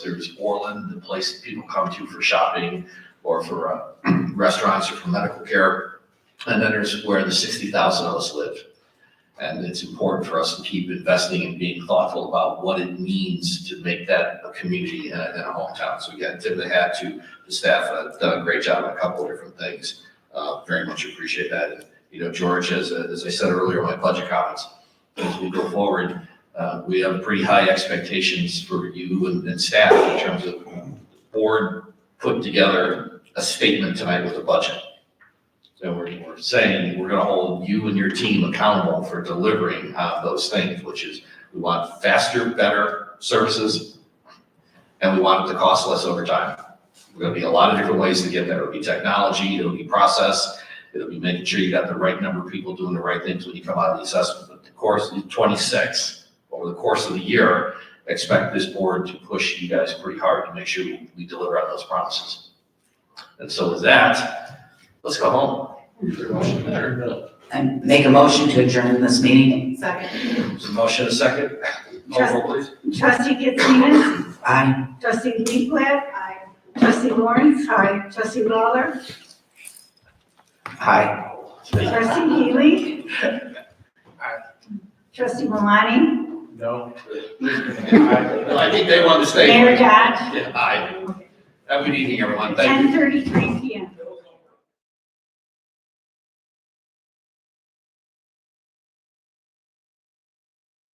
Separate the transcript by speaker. Speaker 1: There's Orland, the place that people come to for shopping or for uh, restaurants or for medical care. And then there's where the sixty thousand of us live. And it's important for us to keep investing and being thoughtful about what it means to make that a community and a, and a hometown. So again, tip of the hat to the staff, uh, done a great job on a couple of different things. Uh, very much appreciate that. And, you know, George, as, as I said earlier in my budget comments, as we go forward, uh, We have pretty high expectations for you and and staff in terms of um, the board putting together a statement tonight with a budget. So we're, we're saying we're gonna hold you and your team accountable for delivering on those things, which is we want faster, better services, and we want it to cost less over time. There'll be a lot of different ways to get there. It'll be technology, it'll be process, it'll be making sure you got the right number of people doing the right things when you come out of the assessment. But the course, is twenty-six, over the course of the year, expect this board to push you guys pretty hard to make sure we- we deliver on those promises. And so with that, let's go home. Is there a motion there?
Speaker 2: I make a motion to adjourn this meeting.
Speaker 3: Second.
Speaker 1: Is there a motion a second? Call roll, please.
Speaker 4: Trustee Gitzman,
Speaker 2: Aye.
Speaker 4: trustee Leaflet. Aye. Trustee Lawrence. Aye. Trustee Lawler,
Speaker 2: Aye.
Speaker 4: trustee Healy. Trustee Malani,
Speaker 1: Well, I think they want to stay.
Speaker 4: Mayor Dodge,
Speaker 1: Yeah, Aye. Have a good evening, everyone. Thank you.
Speaker 4: ten thirty-three P M.